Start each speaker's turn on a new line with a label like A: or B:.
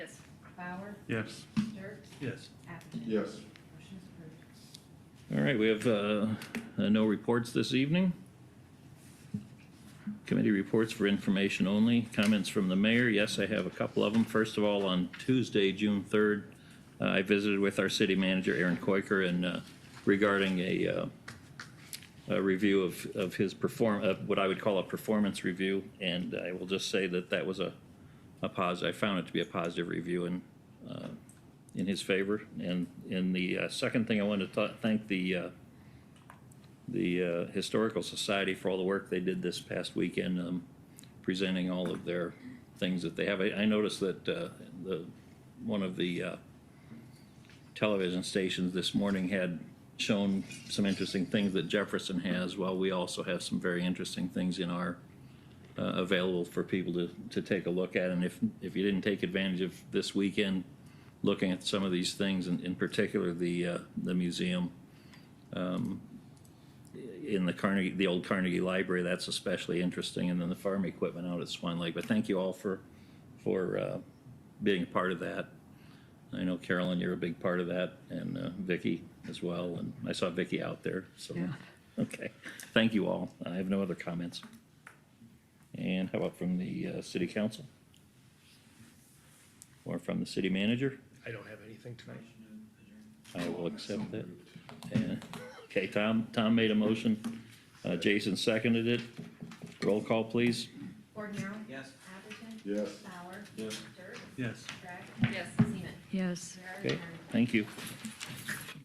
A: Bauer,
B: Yes.
A: Dirk,
B: Yes.
A: Atherton.
C: Yes.
A: Motion is approved.
D: All right, we have uh, uh, no reports this evening. Committee reports for information only. Comments from the mayor. Yes, I have a couple of them. First of all, on Tuesday, June 3rd, uh, I visited with our city manager, Aaron Koiker, and uh, regarding a uh, a review of of his perform, of what I would call a performance review. And I will just say that that was a a positive, I found it to be a positive review and uh, in his favor. And, and the uh, second thing, I wanted to th- thank the, uh, the uh, Historical Society for all the work they did this past weekend, um, presenting all of their things that they have. I, I noticed that uh, the, one of the uh, television stations this morning had shown some interesting things that Jefferson has, while we also have some very interesting things in our uh, available for people to, to take a look at. And if, if you didn't take advantage of this weekend, looking at some of these things, and in particular, the, uh, the museum um, in the Carnegie, the old Carnegie Library, that's especially interesting, and then the farm equipment out at Swan Lake. But thank you all for, for uh, being a part of that. I know Carolyn, you're a big part of that, and uh, Vicky as well, and I saw Vicky out there, so. Okay, thank you all. I have no other comments. And how about from the uh, city council? Or from the city manager?
B: I don't have anything tonight.
D: I will accept that. And- Okay, Tom, Tom made a motion. Uh, Jason seconded it. Roll call, please.
A: Gordon Hayward.
E: Yes.
A: Atherton.
C: Yes.
A: Bauer.
E: Yes.
A: Dirk.
B: Yes.
A: Gregg. Yes. Seaman.
F: yes.
A: There are
D: Okay,
A: none.
D: thank you.